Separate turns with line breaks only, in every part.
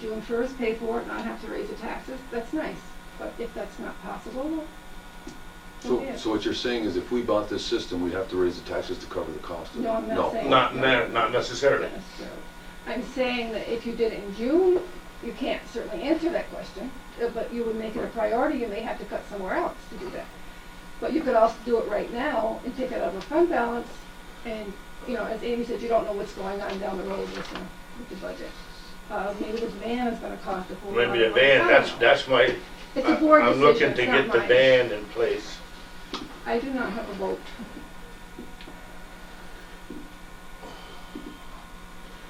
Do insurers pay for it, not have to raise the taxes? That's nice, but if that's not possible, well,
So,
Yeah.
so what you're saying is if we bought this system, we'd have to raise the taxes to cover the cost of it?
No, I'm not saying-
Not, ne- not necessarily.
yes, so. I'm saying that if you did it in June, you can't certainly answer that question, uh, but you would make it a priority, you may have to cut somewhere else to do that. But you could also do it right now and take it out of a fund balance, and, you know, as Amy said, you don't know what's going on down the road with, uh, with the budget. Uh, maybe the van is gonna cost a whole lot of
Maybe the
money. I
van,
don't
that's,
know.
that's my,
It's a board
I'm
decision,
looking to
it's not
get the
mine.
van in place.
I do not have a vote.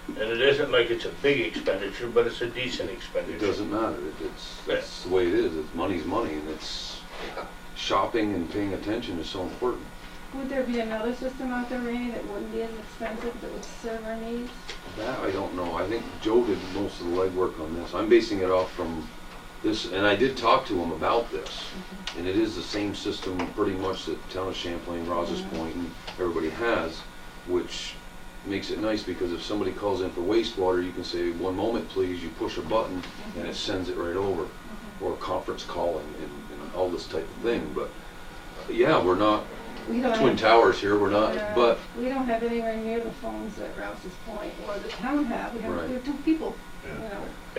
And it isn't like it's a big expenditure, but it's a decent
It
expenditure.
doesn't matter, It- it's, it's the way it is, it's, money's money, and it's, shopping and paying attention is so important.
Would there be another system out there, Randy, that wouldn't be as expensive, that would serve our needs?
That I don't know, I think Joe did most of the legwork on this, I'm basing it off from this, and I did talk to him about this.
Mm-hmm.
And it is the same system pretty much that town of Champlain, Rogers
Mm-hmm.
Point, and everybody has, which makes it nice because if somebody calls in for wastewater, you can say, one moment please, you push a button, and it sends it right over. Or conference call and, and, and all this type of thing, but, yeah, we're not
We don't
Twin
have-
Towers here, we're not,
uh,
but,
We don't have anywhere near the phones that Rouse's Point or the town have, we
Right.
have, we have two people, you
Yeah.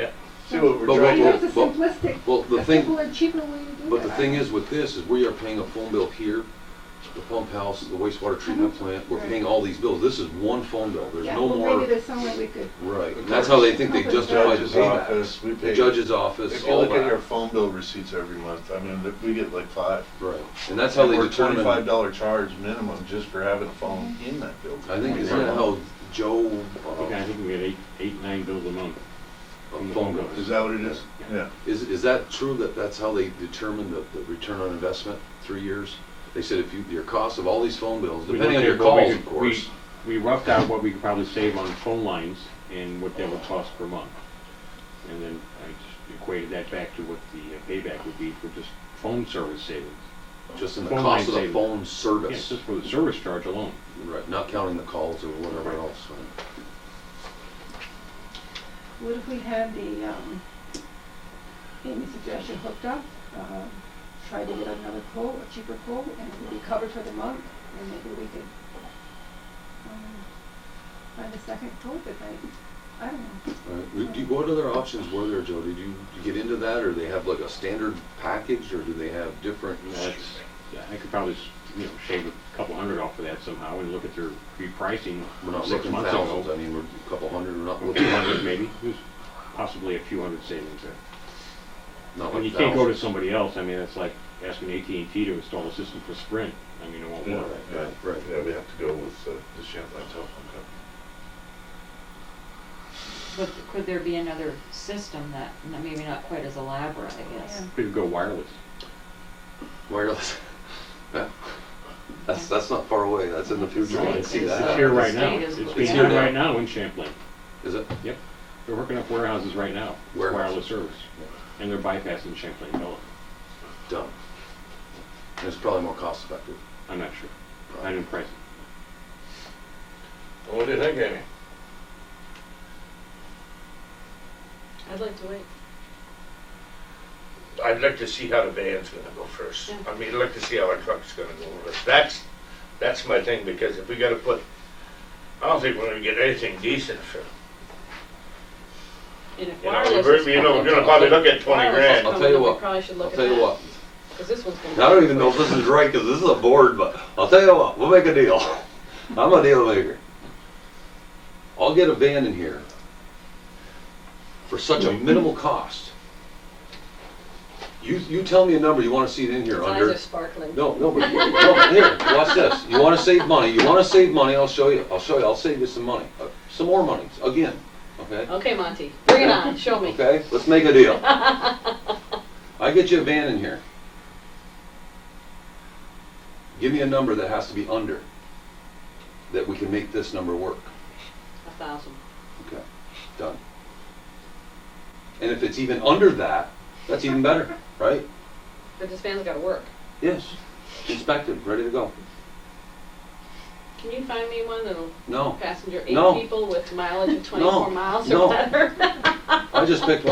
know.
See what
But
we're
I
trying
know
what-
to,
it's a
but-
simplistic,
well, the
a
thing.
simpler and cheaper way to do that.
But the thing is with this, is we are paying a phone bill here, the pump house, the wastewater treatment plant, we're
Uh-huh. Right.
paying all these bills. This is one phone bill, there's
Yeah,
no
well,
more,
Maybe there's some way we could,
right. And that's how they think they
The
justify the
judge's
payback.
office, we
The
pay.
judge's office,
If you
all
look at your
that,
phone bill receipts every month, I mean, th- we get like five.
right. And that's how they
We're
determine,
Twenty-five
I
dollar charge minimum just for having a phone in that building.
think, isn't that how Joe,
Okay, I
uh,
think we had eight, eight, nine bills a month.
phone bill?
Is that what it is? Yeah.
Is, is that true that that's how they determine the, the return on investment, three years? They said if you, your cost of all these phone bills,
We
depending on
looked
your
at what we
calls,
could-
of course.
We we roughed out what we could probably save on phone lines and what that would cost per month. And then I just equated that back to what the uh, payback would be for just phone service savings.
Just in the
phone
cost of
line
the
savings.
phone
Yes,
service,
just for the service charge alone.
right, not counting the calls or whatever else. right.
what if we had the, um, Amy's suggestion hooked up, uh, try to get another quote, a cheaper quote, and it would be covered for the month, and maybe we could, um, find a second quote that might, I don't know.
All right. Would- do- What other options were there, Joe? Did you did you get into that, or they have like a standard package, or do they have different?
You know, That's, yeah, I could probably, s- you know, shave a couple hundred off of that somehow and look at their repricing
We're not
six
looking
months
thousands, I
ago.
mean, we're a couple hundred, we're not
Or
looking,
two hundred maybe, There's possibly a few hundred savings there.
not
When
like
you can't go to
thousands.
somebody else, I mean, that's like asking AT&T to install a system for Sprint. I mean, it won't
Yeah,
work.
yeah.
Right.
Yeah, we have to go with uh, the Champlain telephone company.
But could there be another system that, n- maybe not quite as elaborate, I guess?
Yeah.
Could go wireless.
Wireless. Yeah. That's, that's not far away, that's in the future, I can see
It's
It's
Uh,
here
that.
the
right now.
state is
It's
looking
being
at it.
done right now in Champlain.
Is it?
Yep. They're working up warehouses right now, with
Warehouses.
wireless service. And they're bypassing Champlain Village.
Done. And It's probably more cost effective.
I'm not sure. I didn't price it.
What do you think, Amy?
I'd like to wait.
I'd like to see how the van's gonna go first. I mean, I'd like to see how our truck's gonna go first. That's, that's my thing, because if we gotta put, I don't think we're gonna get anything decent for,
And if
you know,
wireless
we're-
is
you know,
coming,
we're gonna probably look at twenty
wireless is
grand.
I'll
coming,
tell you
we
what.
probably should
I'll
look at
tell you
that,
what,
'cause this one's gonna
I don't
be
even know if
free.
this is right, because this is a board, but I'll tell you what, we'll make a deal. I'm a deal maker. I'll get a van in here for such
Mm-hmm.
a minimal cost. You, you tell me a number you want to see it in here
His
under.
eyes are sparkling.
No, no, but, no, but here, watch this. You wanna save money, you wanna save money, I'll show you, I'll show you, I'll save you some money, Uh, some more money, again, okay?
Okay, Monty, bring it on, show me.
Okay, let's make a deal. I get you a van in here. Give me a number that has to be under, that we can make this number work.
A thousand.
Okay, done. And if it's even under that, that's even better, right?
But this van's gotta work.
Yes, inspected, ready to go.
Can you find me one that'll
No,
passenger eight
No.
people with mileage of 24 miles
no.
or better?
I just picked one.